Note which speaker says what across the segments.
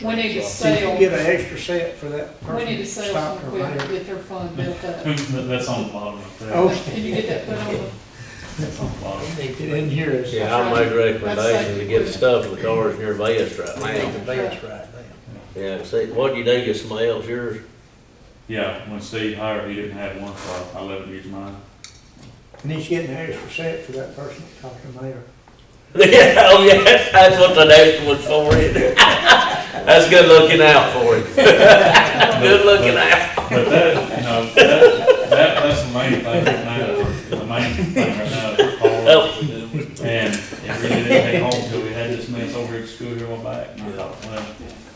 Speaker 1: We need to
Speaker 2: So you
Speaker 1: sell-
Speaker 2: can get an extra set for that person.
Speaker 1: We need to sell
Speaker 2: stopped
Speaker 1: some
Speaker 2: or
Speaker 1: quick,
Speaker 2: whatever.
Speaker 1: get their fund built up.
Speaker 3: That- That's on the bottom of that.
Speaker 2: Oh.
Speaker 1: Can you get that put on
Speaker 3: That's on the bottom.
Speaker 2: They didn't hear us.
Speaker 4: Yeah, I make recommendations to get stuff in the cars near Vest right now.
Speaker 2: The band's right now.
Speaker 4: Yeah, see, what you do, get somebody else yours,
Speaker 3: Yeah, when Steve hired, he didn't have one, so I I let him use mine.
Speaker 2: And he's getting an extra set for that person that talked to the mayor.
Speaker 4: Yeah, oh yeah, that's what the next one's for, isn't it? That's good looking out for it. Good looking out.
Speaker 3: But that, you know, that, that, that's the main thing right now, the main thing right now is Paul.
Speaker 4: Oh,
Speaker 3: And it really didn't take long till we had this mess over at school here on back. And I thought, well,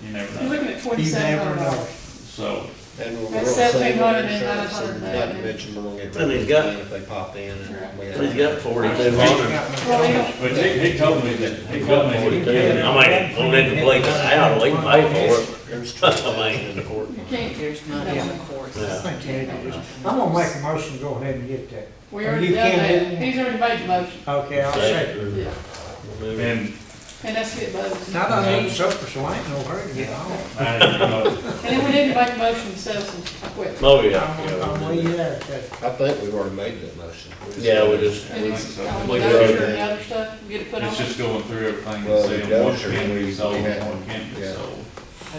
Speaker 3: you never
Speaker 1: You're
Speaker 3: know.
Speaker 1: looking at
Speaker 2: You
Speaker 1: twenty-seven
Speaker 2: never
Speaker 1: hundred
Speaker 2: know.
Speaker 1: dollars.
Speaker 3: So,
Speaker 5: And we're
Speaker 1: That's
Speaker 5: gonna
Speaker 1: seventeen
Speaker 5: save our
Speaker 1: hundred and
Speaker 5: insurance,
Speaker 1: nine hundred
Speaker 5: and
Speaker 1: and
Speaker 5: not to
Speaker 1: nine.
Speaker 5: mention we're gonna get
Speaker 4: And he's
Speaker 5: rid
Speaker 4: got-
Speaker 5: of it if they pop in and. we have-
Speaker 4: He's got forty-two hundred.
Speaker 1: Well, you don't,
Speaker 3: but he, he told me that, he told me.
Speaker 4: Forty-two, I mean, don't need to blink us out, we can pay for it.
Speaker 5: There's two
Speaker 4: I mean, in the court.
Speaker 1: you can't,
Speaker 6: There's money in the courts.
Speaker 2: I think you need to just- I'm gonna make a motion, to go ahead and get that.
Speaker 1: we
Speaker 2: Or
Speaker 1: already
Speaker 2: you
Speaker 1: done
Speaker 2: can
Speaker 1: that.
Speaker 2: do it.
Speaker 1: He's already made the motion.
Speaker 2: Okay, I'll say.
Speaker 1: Yeah,
Speaker 3: And
Speaker 1: and that's it, buddy.
Speaker 2: Now, I need supper, so I ain't no hurry to get on.
Speaker 3: I, you know,
Speaker 1: And then we need to make a motion to sell some equipment.
Speaker 4: Oh, yeah,
Speaker 2: I'm,
Speaker 4: yeah.
Speaker 2: I'm
Speaker 4: we'll
Speaker 2: way
Speaker 4: do that.
Speaker 2: there, okay.
Speaker 5: I think we've already made that motion.
Speaker 4: Yeah, we just,
Speaker 1: And it's, on the
Speaker 4: We
Speaker 1: dozer
Speaker 4: did.
Speaker 1: and the other stuff, get it put on.
Speaker 3: it's just going through everything and
Speaker 5: Well, the
Speaker 3: seeing what
Speaker 5: dozer,
Speaker 3: can
Speaker 5: we-
Speaker 3: be sold
Speaker 5: we
Speaker 3: and
Speaker 5: had-
Speaker 3: what can't be
Speaker 5: yeah.
Speaker 3: sold.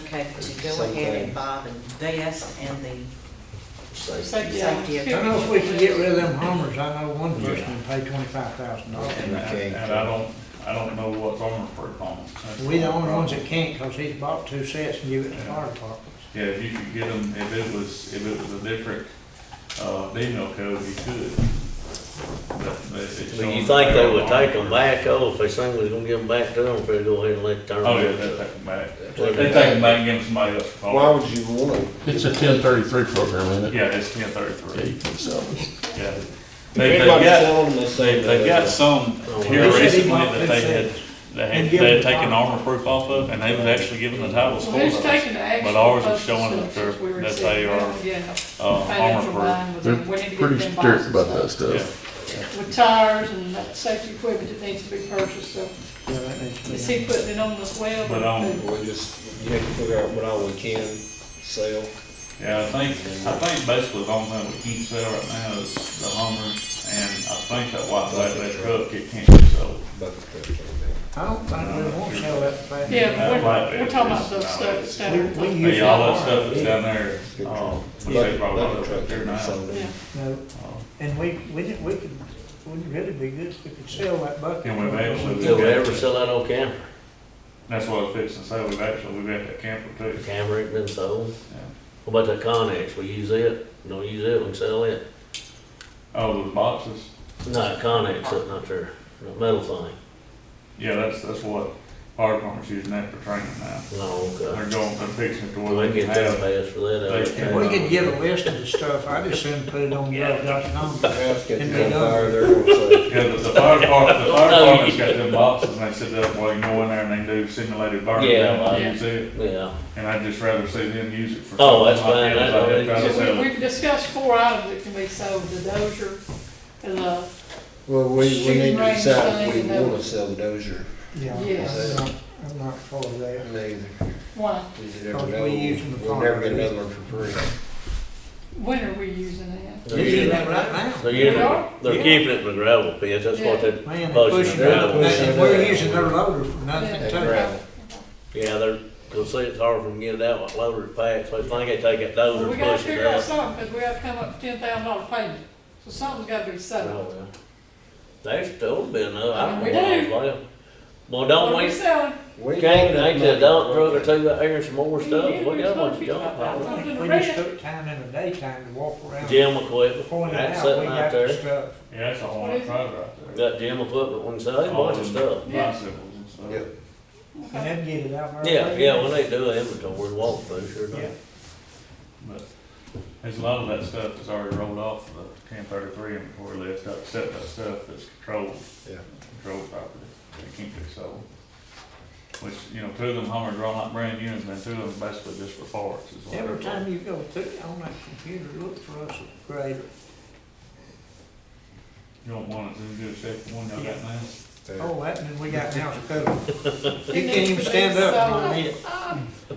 Speaker 6: Okay, to go
Speaker 5: Same
Speaker 6: ahead
Speaker 5: thing.
Speaker 6: and buy the vest and the,
Speaker 4: say,
Speaker 1: Safety
Speaker 6: Safety.
Speaker 2: I know if we can get rid of them Hummers, I know one person would pay twenty-five thousand dollars.
Speaker 3: And I-
Speaker 5: Okay.
Speaker 3: and I don't, I don't know what's on for phone.
Speaker 2: We the only ones that can't, cause he's bought two sets and give it to the fire department.
Speaker 3: Yeah, if you could get them, if it was, if it was a different, uh, email code, you could. But, but if it's
Speaker 4: Do you
Speaker 3: showing
Speaker 4: think
Speaker 3: that
Speaker 4: they would
Speaker 3: they're
Speaker 4: take them
Speaker 3: on-
Speaker 4: back, oh, if they think we're gonna give them back to them, if they go ahead and let it turn
Speaker 3: Oh, yeah,
Speaker 4: them
Speaker 3: they'd take
Speaker 4: over?
Speaker 3: them back.
Speaker 4: Take
Speaker 3: They take
Speaker 4: 'em
Speaker 3: them back and give them somebody else a
Speaker 5: Why
Speaker 3: call.
Speaker 5: would you wanna?
Speaker 7: It's a ten thirty-three program, isn't it?
Speaker 3: Yeah, it's ten
Speaker 7: Yeah,
Speaker 3: thirty-three,
Speaker 7: you can sell it.
Speaker 3: yeah. They,
Speaker 5: They've
Speaker 3: they got,
Speaker 5: they,
Speaker 3: they got some here
Speaker 4: They
Speaker 2: said he
Speaker 3: recently
Speaker 2: bought
Speaker 3: that
Speaker 2: them
Speaker 3: they had,
Speaker 2: sets.
Speaker 3: they
Speaker 2: And
Speaker 3: had,
Speaker 2: give
Speaker 3: they had
Speaker 2: them
Speaker 3: taken
Speaker 2: back.
Speaker 3: armor proof off of, and they was actually giving the titles
Speaker 1: So
Speaker 3: for
Speaker 1: who's
Speaker 3: us.
Speaker 1: taking the action?
Speaker 3: But ours is
Speaker 1: post
Speaker 3: showing that they're-
Speaker 1: since we were
Speaker 3: that they
Speaker 1: sitting
Speaker 3: are,
Speaker 1: Yeah.
Speaker 3: Uh, armor
Speaker 1: Financial
Speaker 3: proof.
Speaker 1: line with
Speaker 7: They're
Speaker 1: them. We need to get
Speaker 7: pretty
Speaker 1: them
Speaker 7: strict
Speaker 1: boxes
Speaker 7: about
Speaker 1: up.
Speaker 7: that stuff.
Speaker 1: With tires and that safety equipment that needs to be purchased, so
Speaker 2: Yeah, that needs to be.
Speaker 1: is he putting it on as well?
Speaker 3: But, um,
Speaker 5: We just, you have to figure out what all we can sell.
Speaker 3: Yeah, I think, I think basically the only thing we can't sell right now is the Hummer, and I think that white, that, that truck, it can't be sold.
Speaker 5: But
Speaker 2: I don't think we won't sell that thing.
Speaker 1: Yeah,
Speaker 3: That might be
Speaker 1: we're, we're talking about
Speaker 3: just-
Speaker 1: those stuff that's down there.
Speaker 2: We- we
Speaker 3: But
Speaker 2: use
Speaker 3: yeah, all that
Speaker 2: that
Speaker 3: stuff that's down there,
Speaker 4: Oh,
Speaker 3: um, we say probably all that up there now.
Speaker 1: Yeah.
Speaker 2: No,
Speaker 3: Uh,
Speaker 2: and we, we didn't, we could, wouldn't really be good if we could sell that bucket.
Speaker 3: Can we mail some?
Speaker 4: Do we ever sell that old camper?
Speaker 3: That's what I was fixing to say, we've actually, we've got that camper too.
Speaker 4: Camper ain't been sold.
Speaker 3: Yeah.
Speaker 4: What about that Conex, we use it, don't use it, we can sell it?
Speaker 3: Oh, the boxes,
Speaker 4: No, Conex, that's not there, that metal thing,
Speaker 3: yeah, that's, that's what fire department's using that for training now.
Speaker 4: no, okay.
Speaker 3: They're going, they're fixing it to
Speaker 4: We
Speaker 3: where
Speaker 4: can
Speaker 3: they can
Speaker 4: get that
Speaker 3: have,
Speaker 4: passed for that out
Speaker 3: They
Speaker 4: there.
Speaker 3: can-
Speaker 2: We could give a list of the stuff, I just soon put it on the other guy's number.
Speaker 5: Ask if
Speaker 2: And
Speaker 5: you
Speaker 2: they
Speaker 5: got
Speaker 2: don't.
Speaker 5: fire, they're gonna say,
Speaker 3: yeah, the, the fire department, the fire
Speaker 4: No, you-
Speaker 3: department's got them boxes, and they sit up, well, you go in there and they do simulated burn
Speaker 4: Yeah,
Speaker 3: down,
Speaker 4: like-
Speaker 3: and use it.
Speaker 4: Yeah,
Speaker 3: And I'd just rather see them use it for.
Speaker 4: Oh, that's
Speaker 3: something like
Speaker 4: fine.
Speaker 3: that,
Speaker 4: That's
Speaker 3: like they're
Speaker 4: all
Speaker 3: trying to
Speaker 1: So
Speaker 3: sell
Speaker 1: we-
Speaker 3: it.
Speaker 1: We've discussed four items that can be sold, the dozer, and uh, the,
Speaker 5: well, we, we need
Speaker 1: Shooting
Speaker 5: to
Speaker 1: range
Speaker 5: decide if we
Speaker 1: thing, no.
Speaker 5: wanna sell the Dozier.
Speaker 2: Yeah, I'm
Speaker 1: Yes.
Speaker 2: not, I'm not for that.
Speaker 5: Neither.
Speaker 1: one,
Speaker 5: You never
Speaker 2: Because we
Speaker 5: know.
Speaker 2: use them
Speaker 5: We'll
Speaker 2: for-
Speaker 5: never get another one for free.
Speaker 1: when are we using that?
Speaker 4: they're
Speaker 2: You're using
Speaker 4: using,
Speaker 2: that right now.
Speaker 4: they're using,
Speaker 1: Yeah.
Speaker 4: they're keeping it in the gravel pits, that's what they,
Speaker 2: Man, they're
Speaker 4: Pushing
Speaker 2: pushing,
Speaker 4: it out.
Speaker 2: that- that- we're using their loader for nothing
Speaker 1: Yeah.
Speaker 5: That
Speaker 2: too.
Speaker 5: gravel.
Speaker 4: yeah, they're, cause see, it's hard for them to get it out, like loaded packs, they think they take it dozer
Speaker 1: We
Speaker 4: and
Speaker 1: gotta
Speaker 4: push it
Speaker 1: figure out
Speaker 4: out.
Speaker 1: something, because we gotta come up with ten thousand dollar payment, so something's gotta be
Speaker 4: Oh,
Speaker 1: sold.
Speaker 4: well. There's still been, uh, I don't
Speaker 1: We do.
Speaker 4: know. what else. Well,
Speaker 1: What
Speaker 4: don't
Speaker 1: are we
Speaker 4: we,
Speaker 1: selling?
Speaker 5: We
Speaker 4: can't,
Speaker 5: don't
Speaker 4: ain't
Speaker 5: make
Speaker 4: the dump
Speaker 5: it.
Speaker 4: truck or two out here and some more
Speaker 1: Yeah,
Speaker 4: stuff,
Speaker 1: we
Speaker 4: we got a
Speaker 1: just
Speaker 4: bunch of
Speaker 1: don't
Speaker 4: junk.
Speaker 1: pick up
Speaker 4: piles.
Speaker 1: that.
Speaker 2: We just took time in the daytime to walk around.
Speaker 4: Gym equipment,
Speaker 2: Point it
Speaker 4: that's
Speaker 2: out, we
Speaker 4: sitting out
Speaker 2: got the
Speaker 4: there,
Speaker 2: stuff.
Speaker 3: Yeah, that's a whole
Speaker 1: What
Speaker 3: lot of
Speaker 1: is it?
Speaker 3: right there.
Speaker 4: got gym equipment, we can sell a
Speaker 3: All
Speaker 4: bunch of
Speaker 2: Oh.
Speaker 3: them
Speaker 4: stuff.
Speaker 3: Bicycles and stuff.
Speaker 5: Yeah.
Speaker 2: And then get it out. there.
Speaker 4: Yeah, yeah, when they do an inventory, walk through, sure
Speaker 2: Yeah.
Speaker 4: enough.
Speaker 3: But there's a lot of that stuff that's already rolled off the ten thirty-three inventory list, except that stuff that's controlled.
Speaker 5: Yeah.
Speaker 3: Controlled property, they can't be sold. Which, you know, two of them Hummers are all like brand new, and then two of them basically just for parts. is what
Speaker 2: Every
Speaker 3: they're for.
Speaker 2: time you go through, on that computer, look for us at grader.
Speaker 3: You don't want it, then do a second one, y'all got now.
Speaker 5: Yeah.
Speaker 2: Oh, that, and then we got now, it's covered.
Speaker 1: It
Speaker 2: You
Speaker 1: needs
Speaker 2: can't
Speaker 1: to
Speaker 2: even
Speaker 1: be
Speaker 2: stand up
Speaker 1: sold.
Speaker 2: when you need it.